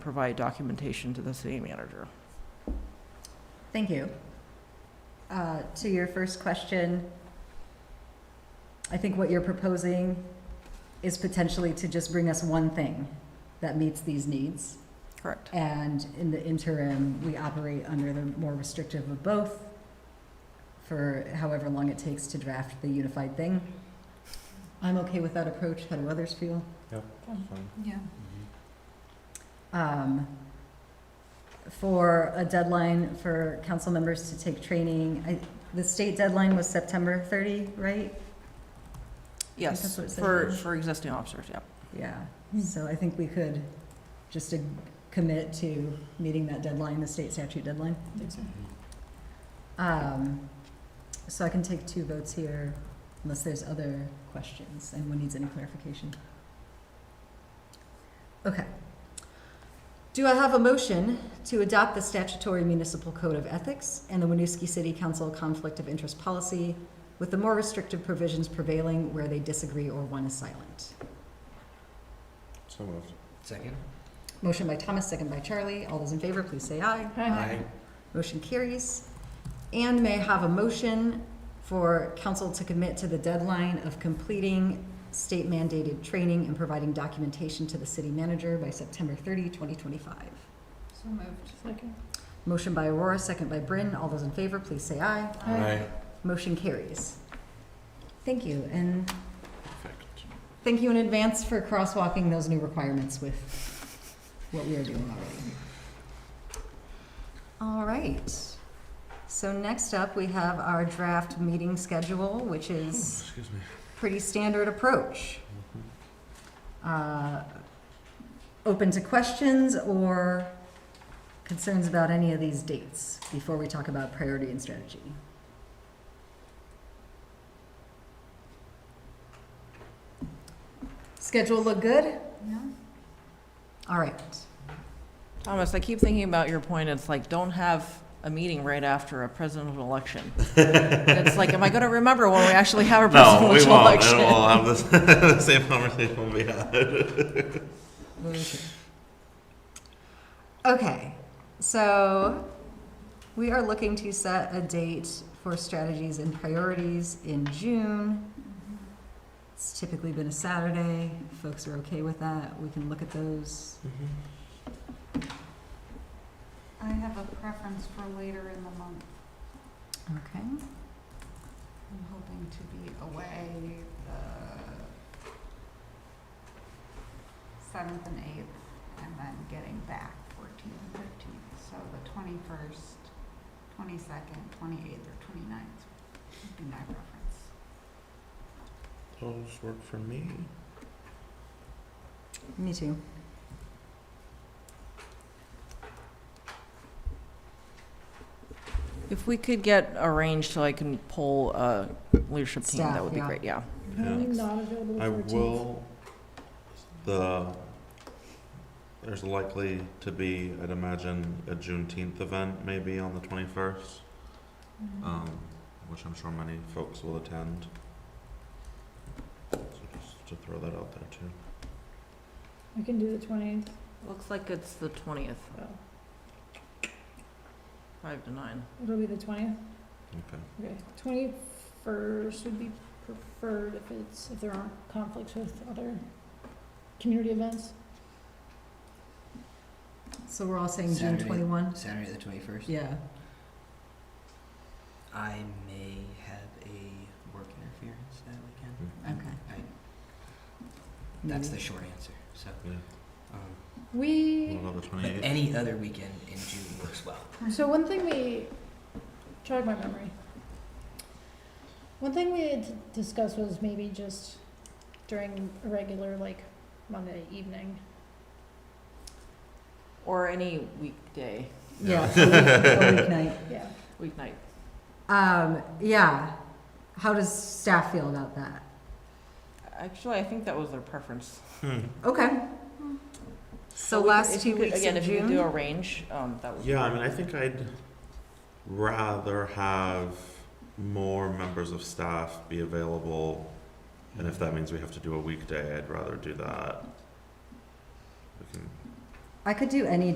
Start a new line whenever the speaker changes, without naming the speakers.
provide documentation to the city manager.
Thank you. Uh, To your first question, I think what you're proposing is potentially to just bring us one thing that meets these needs.
Correct.
And in the interim, we operate under the more restrictive of both for however long it takes to draft the unified thing. I'm okay with that approach. How do others feel?
Yeah.
um, for a deadline for council members to take training. I, the state deadline was September 30, right?
Yes,
that's what it said.
for, for existing officers, yeah.
Yeah, so I think we could just uh, commit to meeting that deadline, the state statute deadline. Um, so I can take two votes here unless there's other questions, anyone needs any clarification. Okay. Do I have a motion to adopt the statutory municipal code of ethics and the Winooski City Council conflict of interest policy with the more restrictive provisions prevailing where they disagree or one is silent?
So moved.
Second?
Motion by Thomas, second by Charlie. All those in favor, please say aye.
Aye.
Motion carries. And may I have a motion for council to commit to the deadline of completing state mandated training and providing documentation to the city manager by September 30, 2025.
So moved. Second.
Motion by Aurora, second by Bryn. All those in favor, please say aye.
Aye.
Motion carries. Thank you, and
Perfect.
thank you in advance for crosswalking those new requirements with what we are doing already. All right. So next up, we have our draft meeting schedule, which is
Excuse me.
pretty standard approach. Uh, Open to questions or concerns about any of these dates before we talk about priority and strategy? Schedule look good?
Yeah.
All right.
Thomas, I keep thinking about your point, it's like, don't have a meeting right after a presidential election. It's like, am I gonna remember when we actually have a
No, we
presidential
won't.
election?
And we'll have this, the same conversation when we had.
Okay, so we are looking to set a date for strategies and priorities in June. It's typically been a Saturday. If Folks are okay with that. We can look at those.
I have a preference for later in the month.
Okay.
I'm hoping to be away the seventh and eighth, and then getting back fourteenth and fifteenth. So the twenty-first, twenty-second, twenty-eighth, or twenty-ninth would be my preference.
Those work for me.
Me too.
If we could get arranged so I can pull a leadership team, that
Staff,
would be
yeah.
great, yeah.
I will, the, there's likely to be, I'd imagine, a Juneteenth event maybe on the twenty-first,
Mm-hmm.
um, which I'm sure many folks will attend. So just to throw that out there too.
I can do the twentieth.
Looks like it's the twentieth. Five to nine.
It'll be the twentieth.
Okay.
Okay, twenty-first would be preferred if it's, if there aren't conflicts with other community events.
So we're all saying June
Saturday.
21?
Saturday the twenty-first?
Yeah.
I may have a work interference that weekend.
Mm,
Okay.
I, Mm-hmm. that's the
Maybe.
short answer, so.
Yeah.
um,
We,
What about the
But
twenty-eighth?
any other weekend in June works well.
so one thing we, jog my memory. One thing we had d- discussed was maybe just during a regular, like, Monday evening.
Or any weekday,
Yeah. A week- a weeknight.
Yeah.
weeknight.
Um, yeah. How does staff feel about that?
Actually, I think that was their preference.
Okay. So
Hmm. we could-
last
if
two
you could-
weeks
Again,
of
if you could do
June?
a range, um, that would. be
Yeah, I
great.
mean, I think I'd rather have more members of staff be available, and if that means we have to do a weekday, I'd rather do that. We can
I could do any